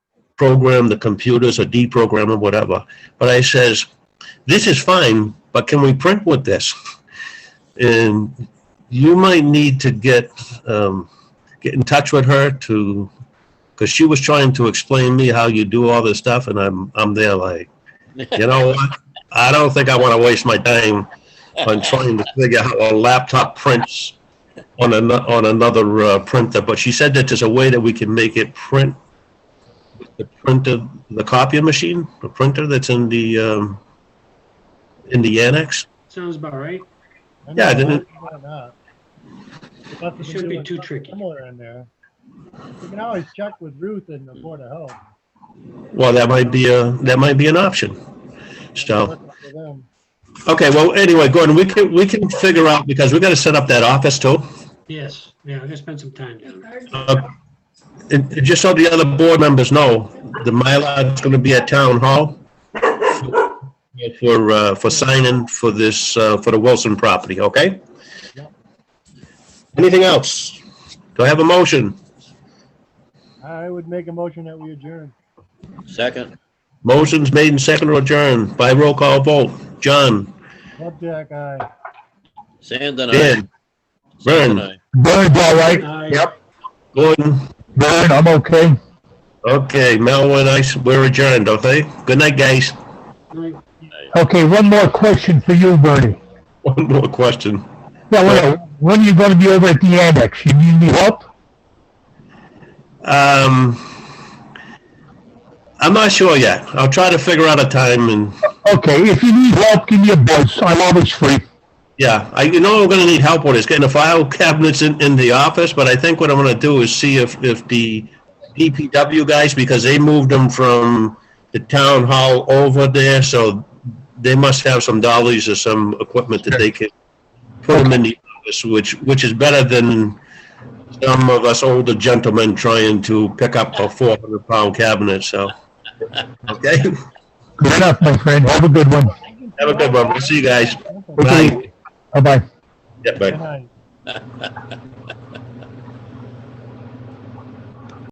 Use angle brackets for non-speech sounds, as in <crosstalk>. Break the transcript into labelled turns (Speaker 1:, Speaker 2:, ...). Speaker 1: program the computers or deprogram or whatever. But I says, this is fine, but can we print with this? And you might need to get, um, get in touch with her to, because she was trying to explain me how you do all this stuff, and I'm, I'm there like, you know what? I don't think I want to waste my time on trying to figure out how a laptop prints on an, on another uh, printer, but she said that there's a way that we can make it print with the printer, the copy machine, the printer that's in the, um, in the annex.
Speaker 2: Sounds about right.
Speaker 3: I
Speaker 1: Yeah,
Speaker 3: know,
Speaker 1: didn't-
Speaker 3: why not? There's nothing
Speaker 2: It shouldn't
Speaker 3: to
Speaker 2: be
Speaker 3: do with
Speaker 2: too
Speaker 3: something
Speaker 2: tricky.
Speaker 3: Similar in there. You can always check with Ruth in the Board of Health.
Speaker 1: Well, that might be a, that might be an option. So,
Speaker 3: Look for them.
Speaker 1: okay, well, anyway, Gordon, we can, we can figure out, because we gotta set up that office too.
Speaker 2: Yes, yeah, I'm gonna spend some time down there.
Speaker 1: Uh, And and just so the other board members know, the Mylar is gonna be at Town Hall for, uh, for signing for this, uh, for the Wilson property, okay? Anything else? Do I have a motion?
Speaker 3: I would make a motion that we adjourn.
Speaker 4: Second,
Speaker 1: Motion's made and seconded or adjourned by roll call vote. John,
Speaker 3: Upjack, aye.
Speaker 4: Sand and I.
Speaker 1: Dan,
Speaker 4: Sand and I.
Speaker 5: Bird's all right.
Speaker 2: Aye.
Speaker 1: Gordon,
Speaker 5: Bird, I'm okay.
Speaker 1: okay, Mel and I, s- we're adjourned, okay? Good night, guys. <laughs>
Speaker 2: Aye.
Speaker 5: Okay, one more question for you, Bertie.
Speaker 1: One more question.
Speaker 5: Yeah, well, when are you gonna be over at the annex? You need any help?
Speaker 1: Um, I'm not sure yet. I'll try to figure out a time and,
Speaker 5: Okay, if you need help, give me a buzz. I'm always free.
Speaker 1: yeah, I, you know, I'm gonna need help with is getting the file cabinets in, in the office, but I think what I'm gonna do is see if, if the DPW guys, because they moved them from the town hall over there, so they must have some dollies or some equipment that they can put them in the office, which, which is better than some of us older gentlemen trying to pick up a four hundred pound cabinet, so. Okay?
Speaker 5: Good enough, my friend. Have a good one.
Speaker 1: Have a good one. We'll see you guys.
Speaker 3: Okay,
Speaker 1: Bye.
Speaker 5: Bye-bye.
Speaker 1: Yeah, bye.
Speaker 3: Good night.